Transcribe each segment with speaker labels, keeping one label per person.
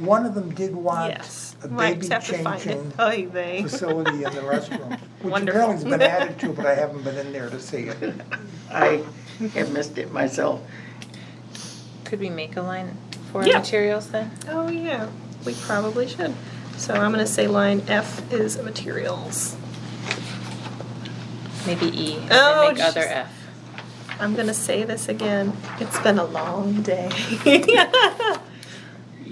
Speaker 1: One of them did want
Speaker 2: Yes.
Speaker 1: a
Speaker 2: Might
Speaker 1: baby
Speaker 2: have to find it. Oh,
Speaker 1: changing
Speaker 2: Oy vey.
Speaker 1: facility in the restroom, which
Speaker 2: Wonderful.
Speaker 1: apparently has been added to, but I haven't been in there to see it.
Speaker 3: I have missed it myself.
Speaker 4: Could we make a line for
Speaker 2: Yeah.
Speaker 4: materials then?
Speaker 2: Oh, yeah, we probably should. So I'm gonna say line F is materials.
Speaker 4: Maybe E, and
Speaker 2: Oh,
Speaker 4: then make other
Speaker 2: jeez.
Speaker 4: F.
Speaker 2: I'm gonna say this again, it's been a long day.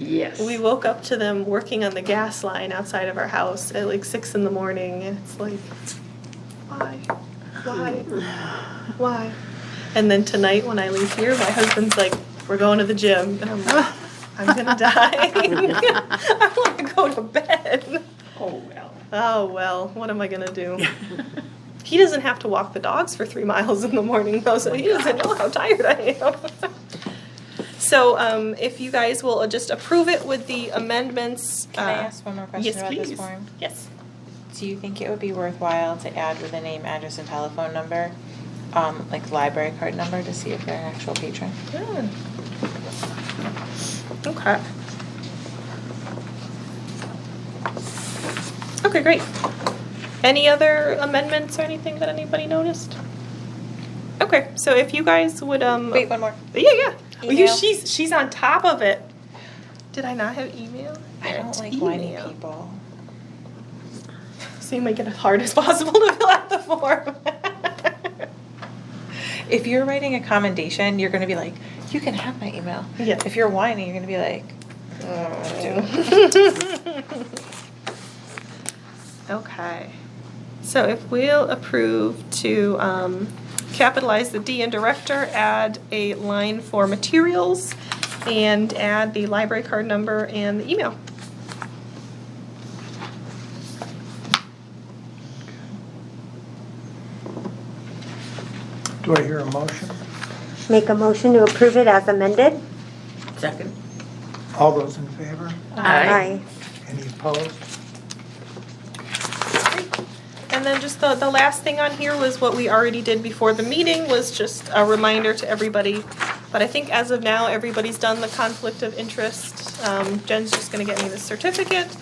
Speaker 3: Yes.
Speaker 2: We woke up to them working on the gas line outside of our house at like six in the morning, and it's like, why, why, why? And then tonight when I leave here, my husband's like, "We're going to the gym," and I'm like, "I'm gonna die. I want to go to bed."
Speaker 3: Oh, well.
Speaker 2: Oh well, what am I gonna do? He doesn't have to walk the dogs for three miles in the morning though, so he doesn't know how tired I am. So, um, if you guys will just approve it with the amendments.
Speaker 4: Can I
Speaker 2: uh,
Speaker 4: ask one more question
Speaker 2: yes,
Speaker 4: about this
Speaker 2: please.
Speaker 4: form?
Speaker 2: Yes.
Speaker 4: Do you think it would be worthwhile to add with a name, address, and telephone number, um, like library card number to see if they're an actual patron?
Speaker 2: Okay. Okay, great. Any other amendments or anything that anybody noticed? Okay, so if you guys would, um.
Speaker 4: Wait, one more.
Speaker 2: Yeah, yeah. Well, you,
Speaker 4: Email.
Speaker 2: she's she's on top of it. Did I not have email?
Speaker 4: I don't
Speaker 2: It's
Speaker 4: like whiny
Speaker 2: email.
Speaker 4: people.
Speaker 2: So you make it as hard as possible to fill out the form.
Speaker 4: If you're writing a commendation, you're gonna be like, you can have my email.
Speaker 2: Yeah.
Speaker 4: If you're whiny, you're gonna be like,
Speaker 2: okay. So if we'll approve to um, capitalize the D in director, add a line for materials, and add the library card number and the email.
Speaker 1: Do I hear a motion?
Speaker 5: Make a motion to approve it as amended?
Speaker 3: Second.
Speaker 1: All those in favor?
Speaker 5: Aye.
Speaker 1: Any opposed?
Speaker 2: And then just the, the last thing on here was what we already did before the meeting, was just a reminder to everybody. But I think as of now, everybody's done the conflict of interest. Um, Jen's just gonna get me the certificate.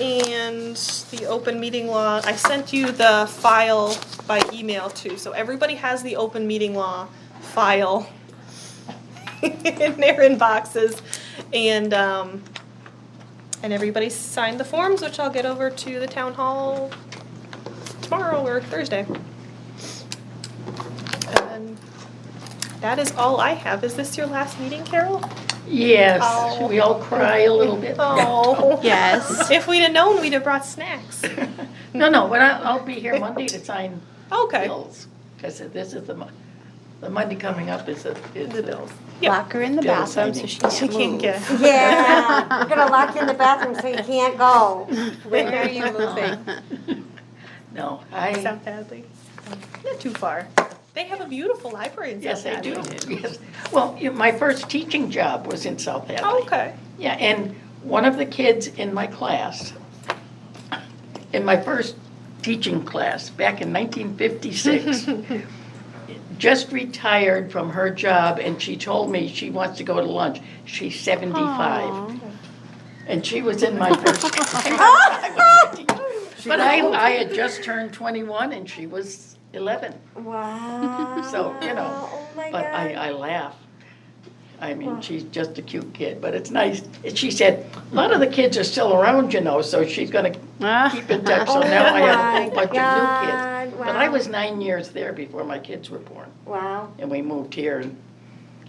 Speaker 2: And the open meeting law, I sent you the file by email too, so everybody has the open meeting law file in their inboxes. And, um, and everybody signed the forms, which I'll get over to the town hall tomorrow or Thursday. And that is all I have. Is this your last meeting, Carol?
Speaker 3: Yes. Should we all cry a little bit?
Speaker 2: Oh.
Speaker 5: Yes.
Speaker 2: If we'd have known, we'd have brought snacks.
Speaker 3: No, no, but I- I'll be here Monday to sign
Speaker 2: Okay.
Speaker 3: bills. Because this is the, Mon- the Monday coming up is the, is
Speaker 2: The
Speaker 3: the
Speaker 2: bills.
Speaker 3: bills.
Speaker 2: Yeah.
Speaker 6: Lock her in the
Speaker 3: Yeah,
Speaker 6: bathroom so
Speaker 3: exciting.
Speaker 6: she can't
Speaker 2: She can't get.
Speaker 6: move.
Speaker 5: Yeah, we're gonna lock you in the bathroom so you can't go.
Speaker 4: where are you moving?
Speaker 3: No, I,
Speaker 2: South Hadley. Not too far. They have a beautiful library in
Speaker 3: yes,
Speaker 2: South
Speaker 3: I
Speaker 2: Hadley.
Speaker 3: do. Yes. Well, you- my first teaching job was in South Hadley.
Speaker 2: Okay.
Speaker 3: Yeah, and one of the kids in my class, in my first teaching class back in 1956, just retired from her job and she told me she wants to go to lunch. She's 75. And she was in my first. But I, I had just turned 21 and she was 11.
Speaker 5: Wow.
Speaker 3: So, you know,
Speaker 5: Oh my
Speaker 3: But I, uh,
Speaker 5: God.
Speaker 3: I laugh. I mean, she's just a cute kid, but it's nice. She said, a lot of the kids are still around, you know, so she's gonna
Speaker 6: Ah.
Speaker 3: keep in touch. So
Speaker 5: Oh
Speaker 3: now I have a
Speaker 5: my
Speaker 3: whole bunch of new
Speaker 5: God,
Speaker 3: kids. But I
Speaker 5: wow.
Speaker 3: was nine years there before my kids were born,
Speaker 5: Wow.
Speaker 3: and we moved here and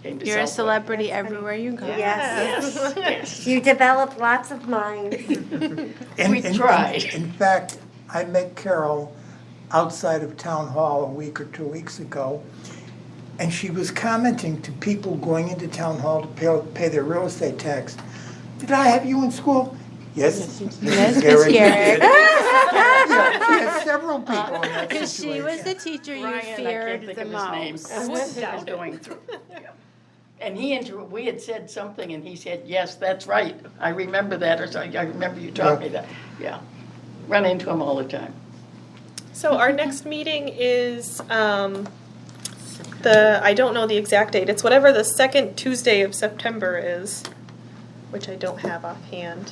Speaker 3: came to Southwood.
Speaker 6: You're a celebrity everywhere you go.
Speaker 5: Yes.
Speaker 3: Yes,
Speaker 5: You develop lots of minds.
Speaker 1: And-
Speaker 3: We
Speaker 1: and- and-
Speaker 3: tried.
Speaker 1: In fact, I met Carol outside of Town Hall a week or two weeks ago, and she was commenting to people going into Town Hall to pay, pay their real estate tax. Did I have you in school? Yes.
Speaker 6: Yes,
Speaker 1: Mrs.
Speaker 6: Miss
Speaker 1: Garrett, you
Speaker 6: Garrett."
Speaker 1: did." Yeah, She had several people in that
Speaker 6: Because she was the
Speaker 1: situation.
Speaker 6: teacher you
Speaker 3: Ryan, I can't
Speaker 6: feared
Speaker 3: think
Speaker 6: the
Speaker 3: of his name.
Speaker 6: most.
Speaker 3: What he was going through. Yeah. And he inter, we had said something, and he said, yes, that's right, I remember that, or something, I remember you taught me that, yeah. Run into him all the time.
Speaker 2: So our next meeting is um, the I don't know the exact date. It's whatever the second Tuesday of September is. which I don't have offhand.